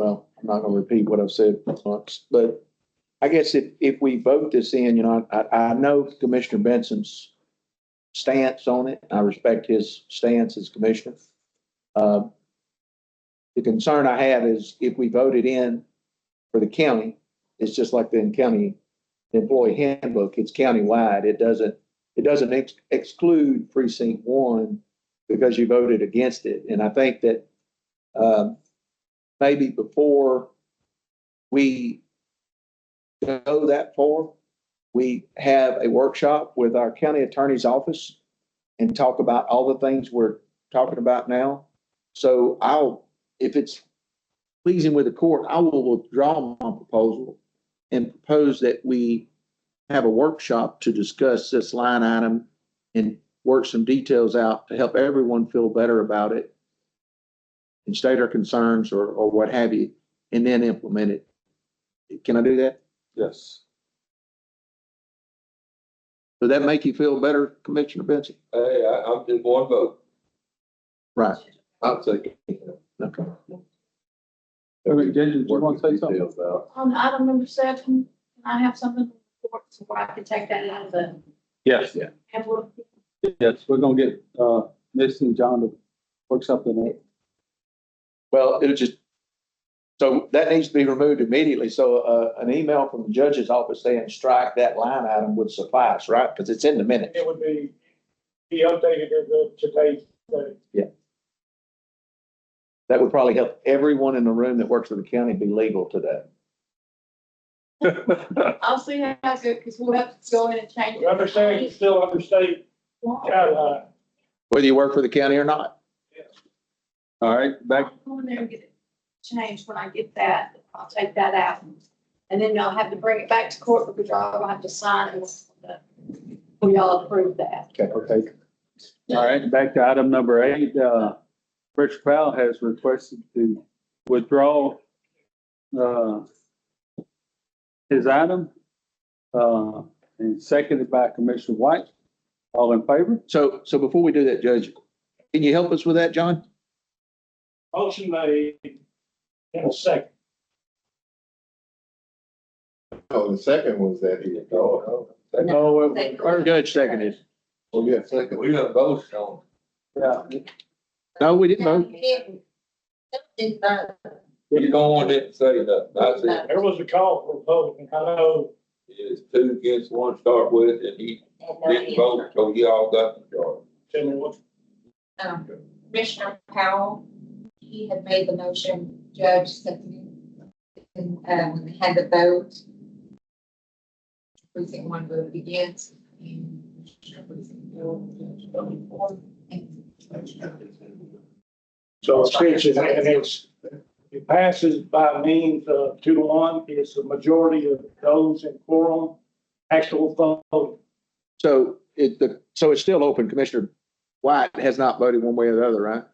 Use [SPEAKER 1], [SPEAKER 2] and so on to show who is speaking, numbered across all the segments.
[SPEAKER 1] I'm not gonna repeat what I've said once, but I guess if, if we vote this in, you know, I, I know Commissioner Benson's stance on it. I respect his stance as commissioner. Uh, The concern I have is if we voted in for the county, it's just like the county employee handbook. It's countywide. It doesn't, it doesn't ex- exclude precinct one because you voted against it. And I think that, um, maybe before we go that far, we have a workshop with our county attorney's office and talk about all the things we're talking about now. So I'll, if it's pleasing with the court, I will withdraw my proposal and propose that we have a workshop to discuss this line item and work some details out to help everyone feel better about it and state our concerns or, or what have you, and then implement it. Can I do that?
[SPEAKER 2] Yes,
[SPEAKER 1] Does that make you feel better, Commissioner Benson?
[SPEAKER 2] hey, I, I'm in one vote,
[SPEAKER 1] Right,
[SPEAKER 2] I'll take.
[SPEAKER 1] okay.
[SPEAKER 3] Eric, did you want to say something?
[SPEAKER 2] Details out.
[SPEAKER 4] On item number seven, can I have something to report so I can take that out of the?
[SPEAKER 3] Yes,
[SPEAKER 4] have a-
[SPEAKER 3] yes, we're gonna get, uh, Miss and John to work something out.
[SPEAKER 1] Well, it'll just, so that needs to be removed immediately. So, uh, an email from the judge's office saying strike that line item would suffice, right? Because it's in the minutes.
[SPEAKER 5] It would be, be updated as of today's date.
[SPEAKER 1] That would probably help everyone in the room that works for the county be legal today.
[SPEAKER 4] I'll see how good, because we'll have to go in and change
[SPEAKER 5] We
[SPEAKER 4] it.
[SPEAKER 5] understand it's still under state guidelines.
[SPEAKER 1] Whether you work for the county or not,
[SPEAKER 3] All right, back,
[SPEAKER 4] I'll Go in there and get it changed when I get that. I'll take that out. And then I'll have to bring it back to court because I'll have to sign it. We all approve that.
[SPEAKER 1] Okay.
[SPEAKER 3] all right, back to item number eight, uh, Rich Powell has requested to withdraw, uh, his item, uh, and seconded by Commissioner White. All in favor?
[SPEAKER 1] So, so before we do that, Judge, can you help us with that, John?
[SPEAKER 5] Motion made in a second.
[SPEAKER 2] Oh, the second was that he, oh,
[SPEAKER 1] No.
[SPEAKER 4] Second.
[SPEAKER 1] Judge seconded.
[SPEAKER 2] oh, yeah, second. We have both shown.
[SPEAKER 3] Yeah.
[SPEAKER 1] No, we didn't vote.
[SPEAKER 2] You don't want it to say nothing, that's it.
[SPEAKER 5] There was a call for a vote, and I know
[SPEAKER 2] It's two against one start with, and he didn't vote, so y'all got the charge.
[SPEAKER 5] tell me what,
[SPEAKER 6] Um, Commissioner Powell, he had made the motion, Judge seconded. And, uh, when they had the vote, precinct one voted against. and Commissioner Precinct two, Judge voted for, and
[SPEAKER 5] so essentially, and it's, it passes by means of two to one, it's the majority of those in quorum, actual vote.
[SPEAKER 1] So it, the, so it's still open. Commissioner White has not voted one way or the other, right?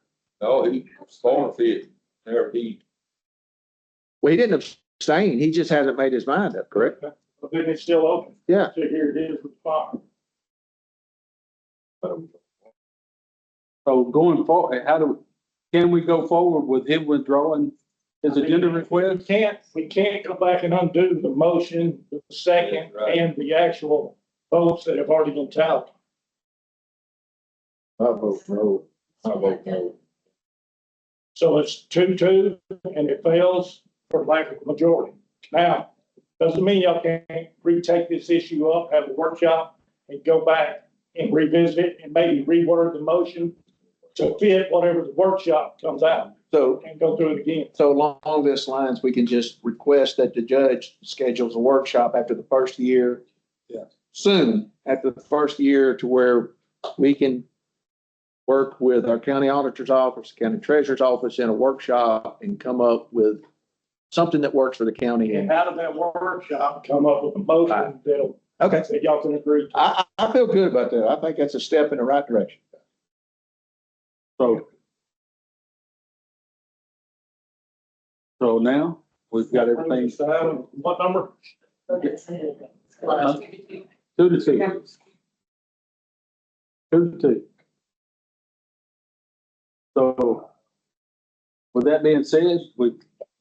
[SPEAKER 2] No, he forfeited, there he,
[SPEAKER 1] Well, he didn't abstain. He just hasn't made his mind up, correct?
[SPEAKER 5] But then it's still open.
[SPEAKER 1] Yeah.
[SPEAKER 5] So here it is with fire.
[SPEAKER 3] So going forward, how do, can we go forward with him withdrawing his agenda
[SPEAKER 5] We
[SPEAKER 3] request?
[SPEAKER 5] can't, we can't go back and undo the motion, the second,
[SPEAKER 2] That's right.
[SPEAKER 5] and the actual votes that have already been tallied.
[SPEAKER 2] I vote no. I vote no.
[SPEAKER 5] So it's two-two, and it fails for lack of majority. Now, doesn't mean y'all can't retake this issue up, have a workshop, and go back and revisit it, and maybe reword the motion to fit whatever the workshop comes out,
[SPEAKER 1] So,
[SPEAKER 5] and go through it again.
[SPEAKER 1] so along along this lines, we can just request that the judge schedules a workshop after the first year.
[SPEAKER 3] Yeah.
[SPEAKER 1] Soon, after the first year to where we can work with our county auditor's office, county treasurer's office in a workshop and come up with something that works for the county.
[SPEAKER 5] And
[SPEAKER 1] And
[SPEAKER 5] out of that workshop, come up with a motion that'll,
[SPEAKER 1] Okay.
[SPEAKER 5] that y'all can agree to.
[SPEAKER 1] I, I, I feel good about that. I think that's a step in the right direction.
[SPEAKER 3] So. So now, we've got everything
[SPEAKER 5] So, What number?
[SPEAKER 3] Uh-huh. two to two, two to two. So. With that being said, we